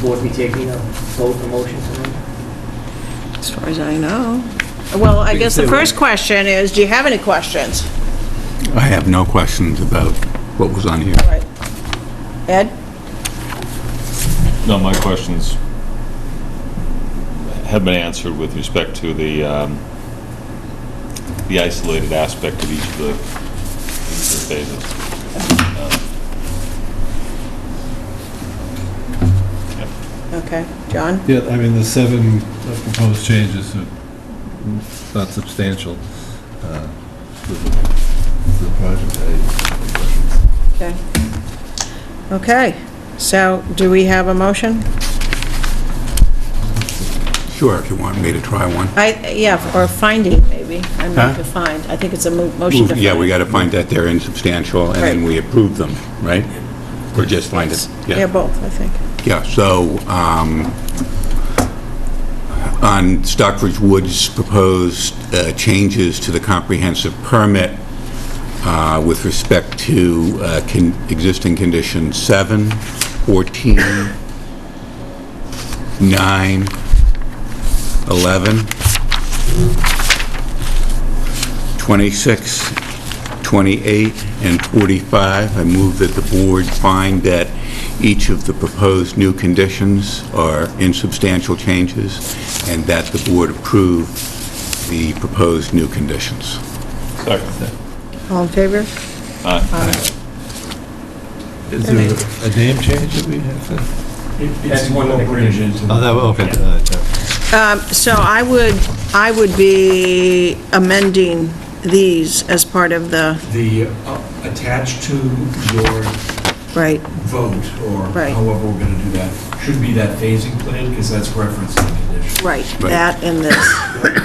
board be taking a vote, a motion tonight? As far as I know. Well, I guess the first question is, do you have any questions? I have no questions about what was on here. Right. Ed? No, my questions have been answered with respect to the, um, the isolated aspect of each of the each of the phases. Okay, John? Yeah, I mean, the seven proposed changes are not substantial uh, to the to the project. Okay. Okay, so do we have a motion? Sure, if you want me to try one. I, yeah, or a finding, maybe. I'm not Huh? defined. I think it's a mo- motion to find. Yeah, we got to find that they're insubstantial, and then Right. we approve them, right? Or just find it, Yeah, yeah. both, I think. Yeah, so um, on Stockbridge Woods' proposed uh, changes to the comprehensive permit uh, with respect to uh, con- existing conditions 7, 14, 9, 11, 26, 28, and 45. I move that the board find that each of the proposed new conditions are insubstantial changes, and that the board approve the proposed new conditions. Second. All in favor? Is there a name change that we have to? That's one of the conditions. Oh, that, okay. all right, yeah. Um, So I would, I would be amending these as part of the, the, uh, attached to your right, vote, or Right. however we're going to do that, should be that phasing plan, because that's referenced in the condition. right, Right. that and this. And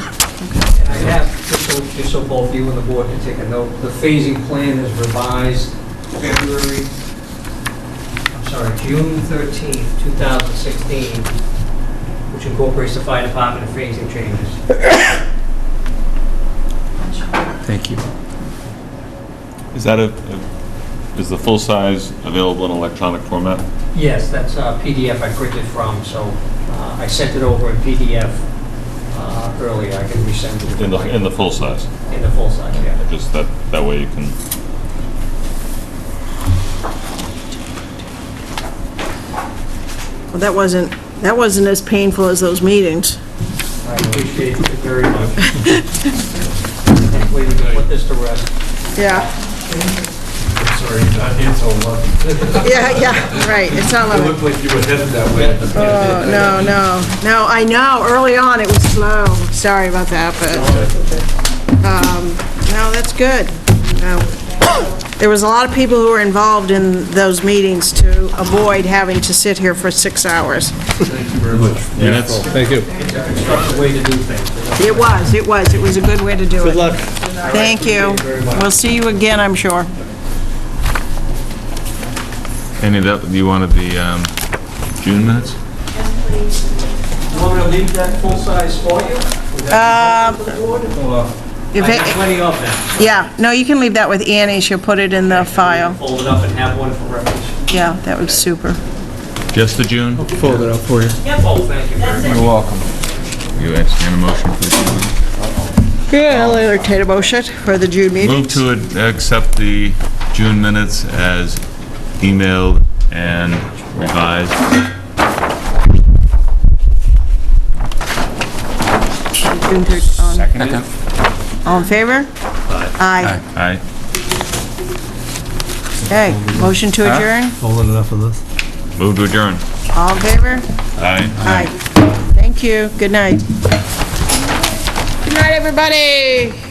I have, just so, just so both you and the board can take a note, the phasing plan is revised February, I'm sorry, June 13, 2016, which incorporates the fire department and phasing changes. Thank you. Is that a, a- is the full size available in electronic format? Yes, that's a PDF I printed from, so uh, I sent it over in PDF uh, earlier. I can resend it. if In you'd the, like. in the full size? In the full size, yeah. Just that, that way you can, Well, that wasn't, that wasn't as painful as those meetings. I appreciate it very much. Hopefully we can put this to rest. Yeah, Sorry, uh, it's all lucky. yeah, yeah, right, it's not It like, looked like you were headed that way at the oh, no, no, no, I know, early on it was slow, sorry about that, but, um, no, that's good. No. There was a lot of people who were involved in those meetings to avoid having to sit here for six hours. Thank you very much. Thank you. It's a constructive way to do things. It was, it was, it was a good way to do it. Good luck. Thank you. Appreciate it very much. We'll see you again, I'm sure. any of that, you wanted the um, June minutes? You want me to leave that full size for you? Would that be good for the board, or- If I have it- plenty of them. Yeah, no, you can leave that with Annie, she'll put it in the file. Fold it up and have one for reference. Yeah, that was super. Just the June? Fold it up for you. Yeah, both, thank you very much. You're welcome. You entertain a motion for the June? Yeah, I'll entertain a motion for the June meeting. Move to ad- accept the June minutes as emailed and revised. June thir- on- All in favor? Aye. Aye. Okay, motion to adjourn? Fold it up for this. Move to adjourn. All in favor? Aye. Aye. Thank you, good night. Good night, everybody.